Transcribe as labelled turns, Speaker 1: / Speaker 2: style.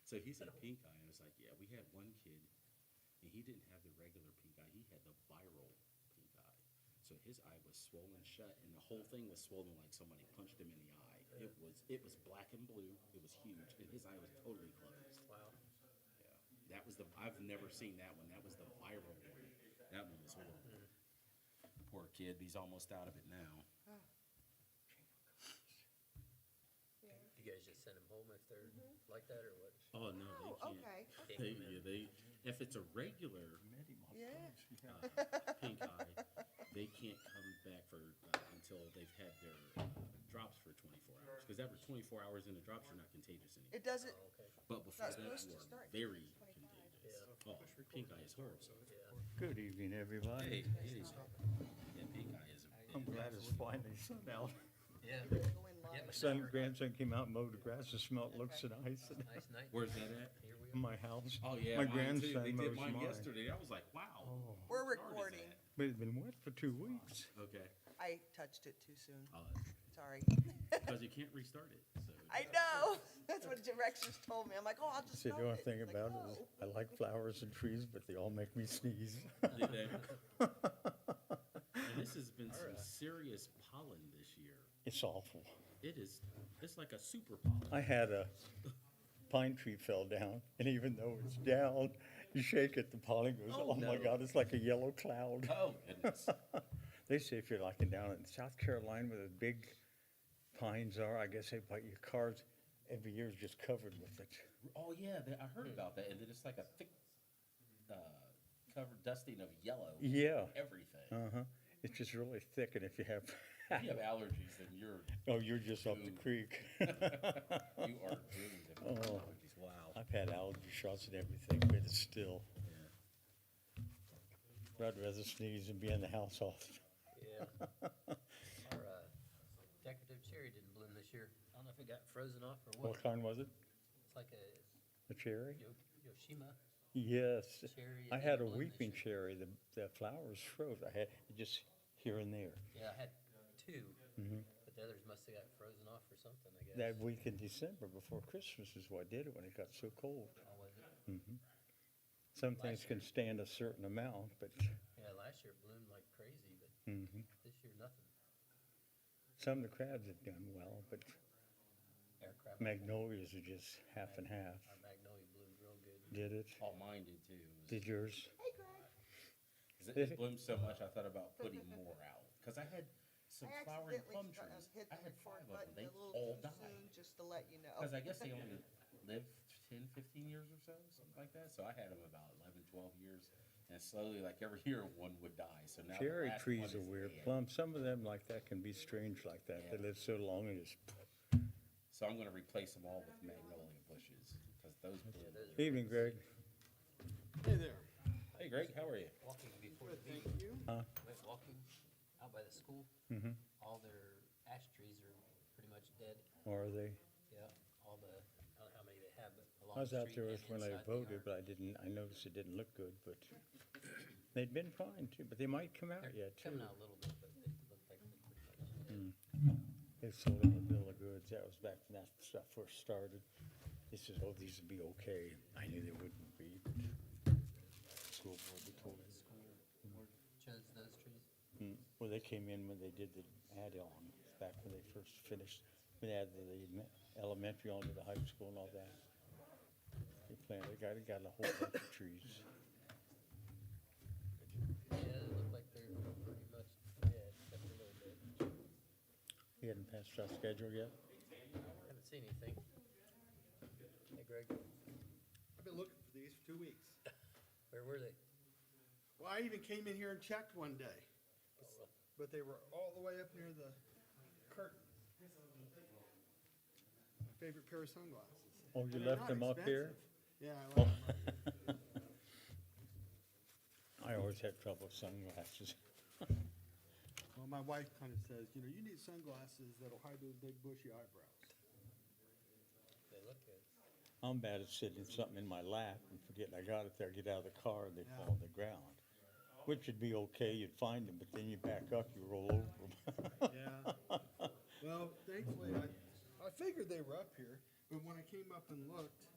Speaker 1: So he said pink eye, and I was like, yeah, we had one kid, and he didn't have the regular pink eye. He had the viral pink eye. So his eye was swollen shut, and the whole thing was swollen like somebody punched him in the eye. It was it was black and blue. It was huge, and his eye was totally closed.
Speaker 2: Wow.
Speaker 1: Yeah, that was the I've never seen that one. That was the viral one. That one was horrible.
Speaker 2: Hmm.
Speaker 1: Poor kid, he's almost out of it now.
Speaker 3: Yeah.
Speaker 2: You guys just send them home if they're like that or what?
Speaker 1: Oh no,
Speaker 3: Oh,
Speaker 1: they can't.
Speaker 3: okay.
Speaker 2: Can't
Speaker 1: They,
Speaker 2: come in.
Speaker 1: yeah, they if it's a regular
Speaker 3: Yeah.
Speaker 1: uh, pink eye, they can't come back for uh, until they've had their uh, drops for 24 hours. Because after 24 hours in the drops, you're not contagious anymore.
Speaker 3: It doesn't,
Speaker 2: Oh, okay,
Speaker 1: But before
Speaker 3: Not
Speaker 1: that,
Speaker 3: supposed to
Speaker 1: you are
Speaker 3: start
Speaker 1: very
Speaker 3: 25.
Speaker 1: contagious.
Speaker 2: Yeah.
Speaker 1: Oh, pink eye is horrible.
Speaker 2: yeah.
Speaker 4: Good evening,
Speaker 1: Hey,
Speaker 4: everybody.
Speaker 1: anyway, yeah, pink eye is.
Speaker 4: I'm glad it's finally sun out.
Speaker 2: Yeah,
Speaker 3: go in
Speaker 2: Yeah,
Speaker 3: live.
Speaker 4: Son, grandson came out and mowed the grass and smelled looks and ice in
Speaker 2: nice night.
Speaker 1: Where's that at?
Speaker 2: Here we are.
Speaker 4: my house.
Speaker 1: Oh yeah,
Speaker 4: My
Speaker 1: mine too. They
Speaker 4: grandson
Speaker 1: did
Speaker 4: mows
Speaker 1: mine
Speaker 4: mine. Oh.
Speaker 1: yesterday. I was like, wow.
Speaker 3: We're
Speaker 1: how hard is
Speaker 3: recording.
Speaker 1: that?
Speaker 4: But it's been wet for two weeks.
Speaker 1: Okay.
Speaker 3: Oh. I touched it too soon. Sorry.
Speaker 1: Uh, Because you can't restart it. So
Speaker 3: I know. That's what directions told me. I'm like, oh, I'll just
Speaker 4: See, the
Speaker 3: stop
Speaker 4: only
Speaker 3: it.
Speaker 4: thing
Speaker 3: Like, "Oh."
Speaker 4: about it is,
Speaker 3: no.
Speaker 4: I like flowers and trees, but they all make me sneeze.
Speaker 1: Did that. and this has been some serious pollen this year.
Speaker 4: It's awful.
Speaker 1: It is. It's like a super pollen.
Speaker 4: I had a pine tree fell down, and even though it's down, you shake it, the pollen goes,
Speaker 1: Oh,
Speaker 4: oh my
Speaker 1: no.
Speaker 4: God, it's like a yellow cloud.
Speaker 1: Oh goodness.
Speaker 4: They say if you're like in down in South Carolina where the big pines are, I guess they bite your cars every year is just covered with it.
Speaker 1: Oh yeah, that, I heard about that. And then it's like a thick, uh, covered dusting of yellow.
Speaker 4: Yeah.
Speaker 1: Everything.
Speaker 4: Uh huh. It's just really thick, and if you have,
Speaker 1: If you have allergies, then you're
Speaker 4: oh, you're just up the
Speaker 1: Ooh.
Speaker 4: creek.
Speaker 1: you are doomed. if you have
Speaker 4: Oh.
Speaker 1: allergies. Wow.
Speaker 4: I've had allergy shots and everything, but it's still.
Speaker 1: Yeah.
Speaker 4: I'd rather sneeze and be in the house all the time.
Speaker 2: Yeah. Our uh, decorative cherry didn't bloom this year. I don't know if it got frozen off or
Speaker 4: What
Speaker 2: what.
Speaker 4: kind was it?
Speaker 2: It's like a
Speaker 4: A cherry?
Speaker 2: Yo- Yoshima
Speaker 4: Yes.
Speaker 2: cherry.
Speaker 4: I
Speaker 2: It
Speaker 4: had a
Speaker 2: didn't bloom this
Speaker 4: weeping
Speaker 2: year.
Speaker 4: cherry. The, the flowers froze. I had just here and there.
Speaker 2: Yeah, I had two,
Speaker 4: Mhm.
Speaker 2: but the others must have got frozen off or something, I guess.
Speaker 4: That week in December before Christmas is what did it when it got so cold.
Speaker 2: Oh, was it?
Speaker 4: Mhm. Some things can stand a certain amount, but
Speaker 2: Yeah, last year it bloomed like crazy, but
Speaker 4: mhm.
Speaker 2: this year nothing.
Speaker 4: some of the crabs have done well, but
Speaker 2: Our crab-
Speaker 4: magnolias are just half and half.
Speaker 2: Our magnolia bloomed real good.
Speaker 4: Did it?
Speaker 1: All Oh, mine did too. It was-
Speaker 4: Did yours?
Speaker 3: Hey, Greg.
Speaker 1: It, it bloomed so much, I thought about putting more out because I had
Speaker 3: I
Speaker 1: some flowering plum
Speaker 3: accidentally
Speaker 1: trees.
Speaker 3: stu- hit
Speaker 1: I
Speaker 3: the
Speaker 1: had five of them.
Speaker 3: record button
Speaker 1: They
Speaker 3: a little
Speaker 1: all
Speaker 3: too
Speaker 1: died.
Speaker 3: soon, just to let you know.
Speaker 1: Because I guess they only lived 10, 15 years or so, something like that. So I had them about 11, 12 years. And slowly, like every year, one would die. So now the
Speaker 4: Cherry
Speaker 1: last
Speaker 4: trees
Speaker 1: one
Speaker 4: are
Speaker 1: is
Speaker 4: weird.
Speaker 1: dead.
Speaker 4: Plum, some of them like that can be strange like that. They live so long and just,
Speaker 1: So I'm going to replace them all with magnolia bushes because those bloom.
Speaker 2: those are-
Speaker 4: evening, Greg.
Speaker 5: Hey there.
Speaker 1: Hey, Greg, how are you?
Speaker 2: Walking before the
Speaker 5: Good,
Speaker 2: meeting.
Speaker 5: thank you.
Speaker 2: went walking out by the school,
Speaker 4: Mhm.
Speaker 2: all their ash trees are pretty much dead.
Speaker 4: Or they,
Speaker 2: Yeah, all the, I don't know how many they have, but along the
Speaker 4: I was
Speaker 2: street.
Speaker 4: out there
Speaker 2: and
Speaker 4: when I
Speaker 2: inside the
Speaker 4: voted,
Speaker 2: yard.
Speaker 4: but I didn't, I noticed it didn't look good, but they'd been fine too, but they might come out
Speaker 2: They're
Speaker 4: yet too.
Speaker 2: coming out a little bit, but they look like they're pretty much dead.
Speaker 4: They sold them a bill of goods. That was back when that stuff first started. They said, oh, these would be okay. I knew they wouldn't be. School board, they told
Speaker 2: The
Speaker 4: us.
Speaker 2: school chose those trees.
Speaker 4: Mm. Well, they came in when they did the add-on, back when they first finished, when they added the me- elementary on to the high school and all that. They planted, they got, they got a whole bunch of trees.
Speaker 2: Yeah, they look like they're pretty much dead, except for a little bit.
Speaker 4: We hadn't passed our schedule yet.
Speaker 2: Haven't seen anything. Hey Greg,
Speaker 5: I've been looking for these for two weeks.
Speaker 2: where were they?
Speaker 5: Well, I even came in here and checked one day,
Speaker 2: Oh, well,
Speaker 5: but they were all the way up near the curtain. My favorite pair of sunglasses.
Speaker 4: Oh, you
Speaker 5: And they're
Speaker 4: left
Speaker 5: not
Speaker 4: them up here?
Speaker 5: expensive. Yeah, I left
Speaker 4: Oh.
Speaker 5: them up.
Speaker 4: I always had trouble with sunglasses.
Speaker 5: Well, my wife kind of says, you know, you need sunglasses that'll hide those big bushy eyebrows.
Speaker 2: They look good.
Speaker 4: I'm bad at sitting something in my lap and forgetting I got it there, get out of the car, and they
Speaker 5: Yeah.
Speaker 4: fall to the ground. Which would be okay, you'd find them, but then you back up, you roll over them.
Speaker 5: Yeah. Well, thankfully, I, I figured they were up here, but when I came up and looked,